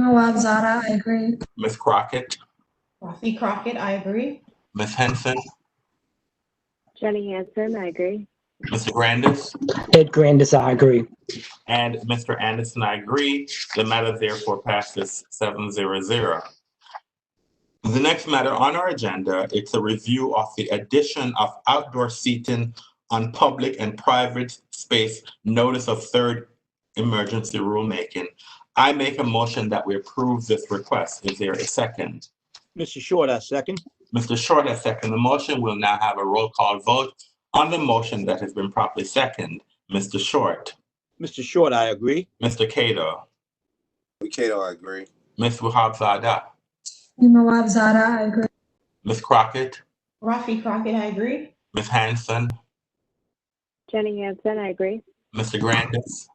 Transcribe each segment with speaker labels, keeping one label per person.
Speaker 1: Nawab Zada, I agree.
Speaker 2: Ms. Crockett,
Speaker 3: Rafi Crockett, I agree.
Speaker 2: Ms. Henson,
Speaker 4: Jenny Hansen, I agree.
Speaker 2: Mr. Grandis,
Speaker 5: Ed Grandis, I agree.
Speaker 2: and Mr. Anderson, I agree. The matter therefore passes seven zero zero. The next matter on our agenda, it's a review of the addition of outdoor seating on public and private space notice of third emergency rulemaking. I make a motion that we approve this request. Is there a second?
Speaker 6: Mr. Short, I second.
Speaker 2: Mr. Short has seconded the motion. We'll now have a roll call vote on the motion that has been properly seconded. Mr. Short,
Speaker 6: Mr. Short, I agree.
Speaker 2: Mr. Cato,
Speaker 7: Kato, I agree.
Speaker 2: Ms. Wahab Zada,
Speaker 1: Nawab Zada, I agree.
Speaker 2: Ms. Crockett,
Speaker 3: Rafi Crockett, I agree.
Speaker 2: Ms. Hanson,
Speaker 4: Jenny Hansen, I agree.
Speaker 2: Mr. Grandis,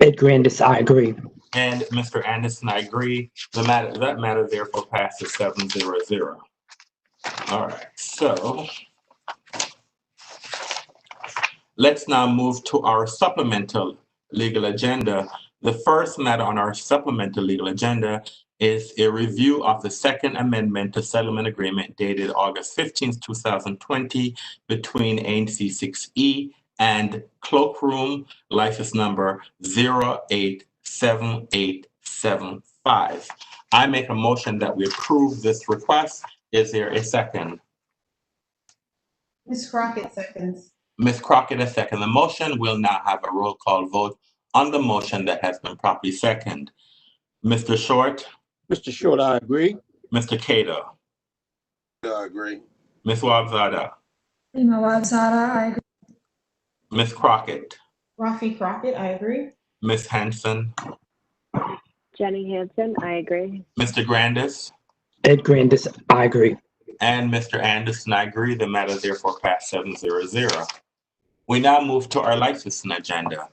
Speaker 5: Ed Grandis, I agree.
Speaker 2: and Mr. Anderson. I agree. The matter, that matter therefore passes seven zero zero. All right, so let's now move to our supplemental legal agenda. The first matter on our supplemental legal agenda is a review of the Second Amendment to Settlement Agreement dated August fifteenth, two thousand twenty between ANC six E and Cloakroom, license number zero eight seven eight seven five. I make a motion that we approve this request. Is there a second?
Speaker 3: Ms. Crockett seconds.
Speaker 2: Ms. Crockett has seconded the motion. We'll now have a roll call vote on the motion that has been properly seconded. Mr. Short,
Speaker 6: Mr. Short, I agree.
Speaker 2: Mr. Cato,
Speaker 7: Kato, I agree.
Speaker 2: Ms. Wabzada,
Speaker 1: Nawab Zada, I agree.
Speaker 2: Ms. Crockett,
Speaker 3: Rafi Crockett, I agree.
Speaker 2: Ms. Hanson,
Speaker 4: Jenny Hansen, I agree.
Speaker 2: Mr. Grandis,
Speaker 5: Ed Grandis, I agree.
Speaker 2: and Mr. Anderson. I agree. The matter therefore passed seven zero zero. We now move to our licensing agenda.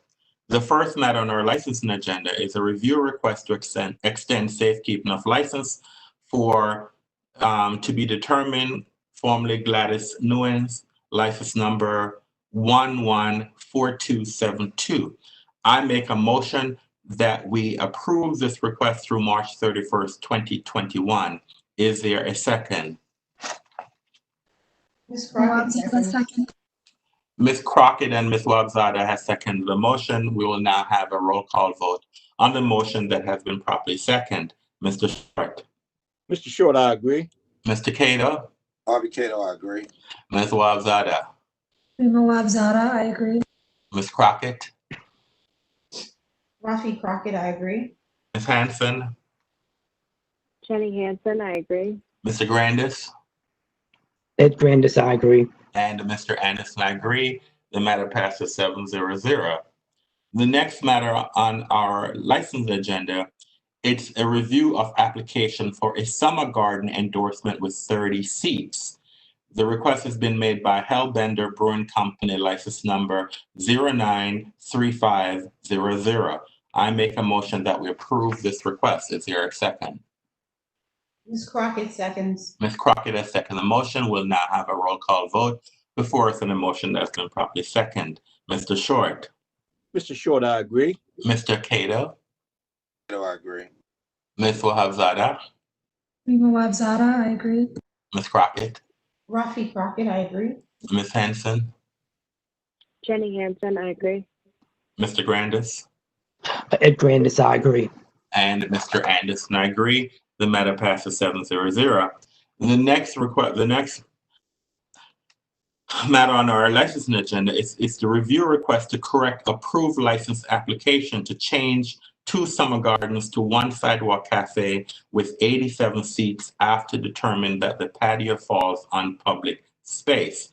Speaker 2: The first matter on our licensing agenda is a review request to extend, extend safekeeping of license for, um, to be determined, formerly Gladys Nguyen's license number one one four two seven two. I make a motion that we approve this request through March thirty-first, twenty twenty-one. Is there a second?
Speaker 3: Ms.
Speaker 1: Nawab
Speaker 3: Crockett
Speaker 1: Zada,
Speaker 3: seconds.
Speaker 1: second.
Speaker 2: Ms. Crockett and Ms. Wabzada has seconded the motion. We will now have a roll call vote on the motion that has been properly seconded. Mr. Short,
Speaker 6: Mr. Short, I agree.
Speaker 2: Mr. Kato,
Speaker 7: Bobby Kato, I agree.
Speaker 2: Ms. Wabzada,
Speaker 1: Nawab Zada, I agree.
Speaker 2: Ms. Crockett,
Speaker 3: Rafi Crockett, I agree.
Speaker 2: Ms. Hanson,
Speaker 4: Jenny Hansen, I agree.
Speaker 2: Mr. Grandis,
Speaker 5: Ed Grandis, I agree.
Speaker 2: and Mr. Anderson, I agree. The matter passes seven zero zero. The next matter on our license agenda, it's a review of application for a summer garden endorsement with thirty seats. The request has been made by Hellbender Brewing Company, license number zero nine three five zero zero. I make a motion that we approve this request. Is there a second?
Speaker 3: Ms. Crockett seconds.
Speaker 2: Ms. Crockett has seconded the motion. We'll now have a roll call vote before us on the motion that's been properly seconded. Mr. Short,
Speaker 6: Mr. Short, I agree.
Speaker 2: Mr. Cato,
Speaker 7: Kato, I agree.
Speaker 2: Ms. Wahabzada,
Speaker 1: Nawab Zada, I agree.
Speaker 2: Ms. Crockett,
Speaker 3: Rafi Crockett, I agree.
Speaker 2: Ms. Hanson,
Speaker 4: Jenny Hansen, I agree.
Speaker 2: Mr. Grandis,
Speaker 5: Ed Grandis, I agree.
Speaker 2: and Mr. Anderson. I agree. The matter passes seven zero zero. The next request, the next matter on our licensing agenda is, is the review request to correct approved license application to change two summer gardens to one sidewalk cafe with eighty-seven seats after determining that the patio falls on public space.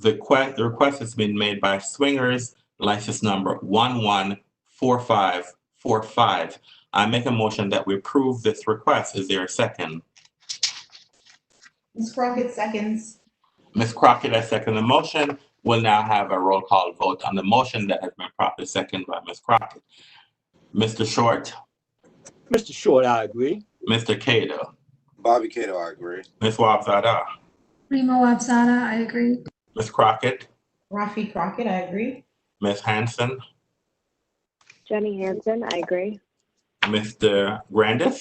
Speaker 2: The que, the request has been made by Swingers, license number one one four five four five. I make a motion that we approve this request. Is there a second?
Speaker 3: Ms. Crockett seconds.
Speaker 2: Ms. Crockett has seconded the motion. We'll now have a roll call vote on the motion that has been properly seconded by Ms. Crockett. Mr. Short,
Speaker 6: Mr. Short, I agree.
Speaker 2: Mr. Cato,
Speaker 7: Bobby Kato, I agree.
Speaker 2: Ms. Wabzada,
Speaker 1: Nawab Zada, I agree.
Speaker 2: Ms. Crockett,
Speaker 3: Rafi Crockett, I agree.
Speaker 2: Ms. Hanson,
Speaker 4: Jenny Hansen, I agree.
Speaker 2: Mr. Grandis?